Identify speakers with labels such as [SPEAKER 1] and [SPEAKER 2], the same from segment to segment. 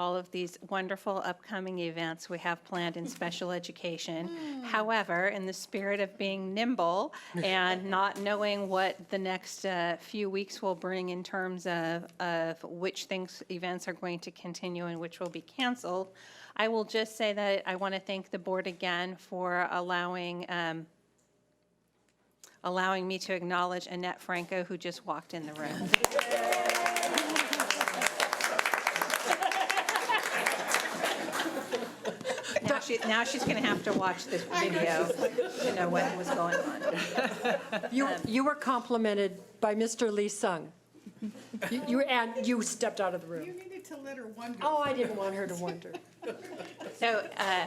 [SPEAKER 1] all of these wonderful upcoming events we have planned in special education. However, in the spirit of being nimble and not knowing what the next uh, few weeks will bring in terms of, of which things, events are going to continue and which will be canceled, I will just say that I want to thank the board again for allowing, um, allowing me to acknowledge Annette Franco, who just walked in the room. Now she, now she's gonna have to watch this video to know what was going on.
[SPEAKER 2] You, you were complimented by Mr. Lee Sung. You- You, and you stepped out of the
[SPEAKER 3] You
[SPEAKER 2] room.
[SPEAKER 3] needed to let her wonder.
[SPEAKER 2] Oh, I didn't want her to wonder.
[SPEAKER 1] So, uh,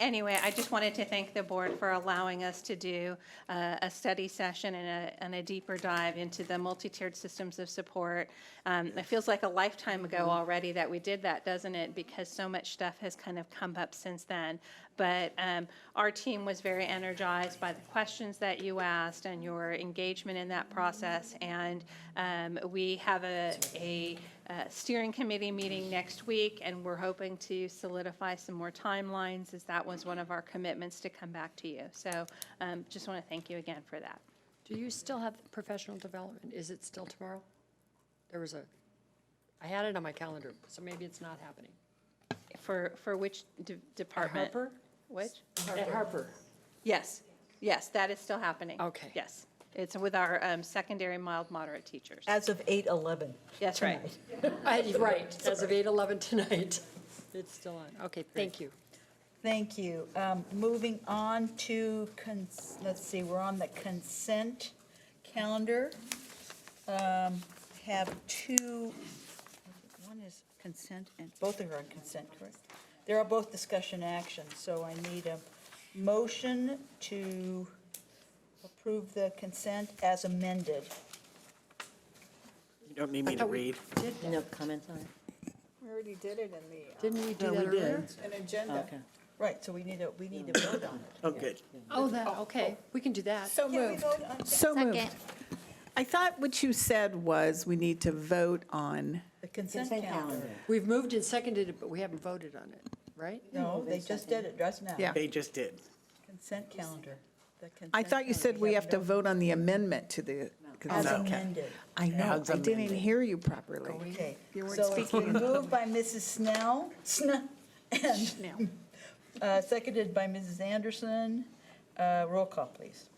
[SPEAKER 1] anyway, I just wanted to thank the board for allowing us to do uh, a study session and a, and a deeper dive into the multi-tiered systems of support. Um, It feels like a lifetime ago already that we did that, doesn't it? Because so much stuff has kind of come up since then. But um, our team was very energized by the questions that you asked and your engagement in that process. And um, we have a, a uh, steering committee meeting next week, and we're hoping to solidify some more timelines, as that was one of our commitments to come back to you. So um, just want to thank you again for that.
[SPEAKER 2] Do you still have professional development? Is it still tomorrow? There was a, I had it on my calendar, so maybe it's not happening.
[SPEAKER 1] For, for which de- department?
[SPEAKER 2] Harper?
[SPEAKER 1] Which?
[SPEAKER 2] At Harper.
[SPEAKER 1] Yes, yes, that is still happening.
[SPEAKER 2] Okay.
[SPEAKER 1] Yes. It's with our um, secondary mild moderate teachers.
[SPEAKER 4] As of 8:11.
[SPEAKER 1] That's right.
[SPEAKER 4] tonight.
[SPEAKER 2] I- Right, as of 8:11 tonight. It's still on. Okay, thank you.
[SPEAKER 4] Thank you. Um, Moving on to, cons- let's see, we're on the consent calendar. Um, Have two, one is consent and, both are on consent, correct? They are both discussion action, so I need a motion to approve the consent as amended.
[SPEAKER 5] You don't need me to
[SPEAKER 2] thought we-
[SPEAKER 5] read.
[SPEAKER 6] No comments on it?
[SPEAKER 3] We already did it in uh,
[SPEAKER 2] Didn't we do that earlier?
[SPEAKER 3] the, an agenda.
[SPEAKER 6] Okay.
[SPEAKER 4] Right, so we need a, we need a vote on it.
[SPEAKER 5] Oh, good.
[SPEAKER 2] Oh, that, okay, we can do that.
[SPEAKER 3] So
[SPEAKER 4] Can we
[SPEAKER 3] moved,
[SPEAKER 4] vote on
[SPEAKER 3] so moved. I thought what you said was we need to vote on,
[SPEAKER 4] the consent calendar?
[SPEAKER 2] We've moved and seconded it, but we haven't voted on it, right?
[SPEAKER 4] No, they just did it just now.
[SPEAKER 3] yeah.
[SPEAKER 5] They just did.
[SPEAKER 4] Consent calendar. The
[SPEAKER 3] I
[SPEAKER 4] consent
[SPEAKER 3] thought you said
[SPEAKER 4] calendar.
[SPEAKER 3] we have to vote on the amendment to the
[SPEAKER 4] As
[SPEAKER 3] consent calendar.
[SPEAKER 4] amended.
[SPEAKER 3] I know,
[SPEAKER 5] As
[SPEAKER 3] I didn't
[SPEAKER 5] amended.
[SPEAKER 3] hear you properly.
[SPEAKER 4] Okay.
[SPEAKER 3] You weren't
[SPEAKER 4] So it's been moved by Mrs. Snell, Snell, and, uh, seconded by Mrs. Anderson. Uh, Roll call, please.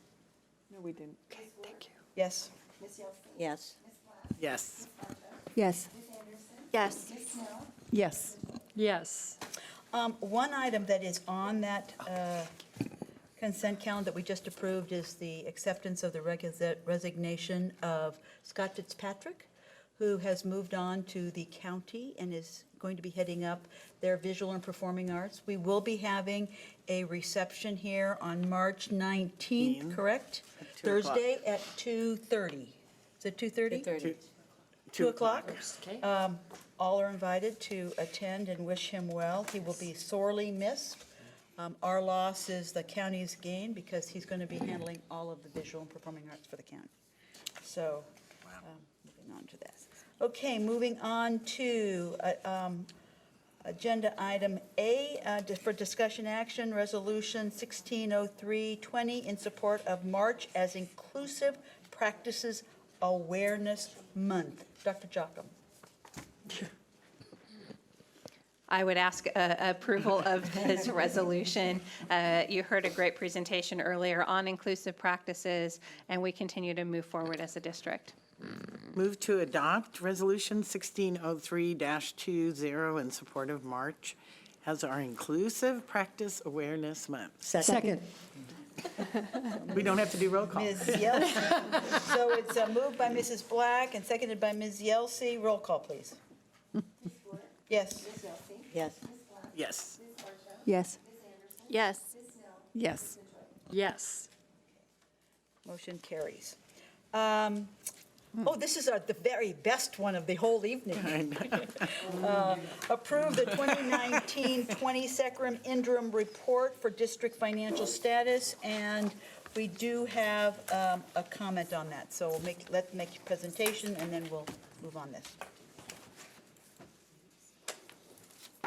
[SPEAKER 3] No, we didn't.
[SPEAKER 2] Okay, thank you.
[SPEAKER 4] Yes.
[SPEAKER 6] Yes.
[SPEAKER 5] Yes.
[SPEAKER 3] Yes.
[SPEAKER 6] Yes.
[SPEAKER 3] Yes.
[SPEAKER 2] Yes,
[SPEAKER 4] Um, One item that is on that uh, consent calendar that we just approved is the acceptance of the regus- resignation of Scott Fitzpatrick, who has moved on to the county and is going to be heading up their visual and performing arts. We will be having a reception here on March 19th, correct?
[SPEAKER 5] At 2 o'clock.
[SPEAKER 4] Thursday at 2:30. Is it 2:30?
[SPEAKER 6] 30.
[SPEAKER 4] 2 o'clock.
[SPEAKER 2] okay.
[SPEAKER 4] Um, All are invited to attend and wish him well. He will be sorely missed. Um, Our loss is the county's gain because he's going to be handling all of the visual and performing arts for the county. So, um, moving on to that. Okay, moving on to uh, um, Agenda Item A uh, di- for discussion action, Resolution 160320 in support of March as Inclusive Practices Awareness Month. Dr. Jocham.
[SPEAKER 1] I would ask uh, approval of this resolution. Uh, You heard a great presentation earlier on inclusive practices, and we continue to move forward as a district.
[SPEAKER 5] Move to adopt Resolution 1603-20 in support of March as our Inclusive Practice Awareness Month.
[SPEAKER 2] Second.
[SPEAKER 5] We don't have to do roll call.
[SPEAKER 4] Ms. Yelsey. So it's uh, moved by Mrs. Black and seconded by Ms. Yelsey. Roll call, please. Yes.
[SPEAKER 6] Yes.
[SPEAKER 5] Yes.
[SPEAKER 3] Yes.
[SPEAKER 6] Yes.
[SPEAKER 3] Yes.
[SPEAKER 2] Yes.
[SPEAKER 4] Motion carries. Um, Oh, this is our- the very best one of the whole evening. Uh, Approve the 2019-20 Secrum interim report for district financial status, and we do have um, a comment on that. So we'll make, let's make a presentation, and then we'll move on this.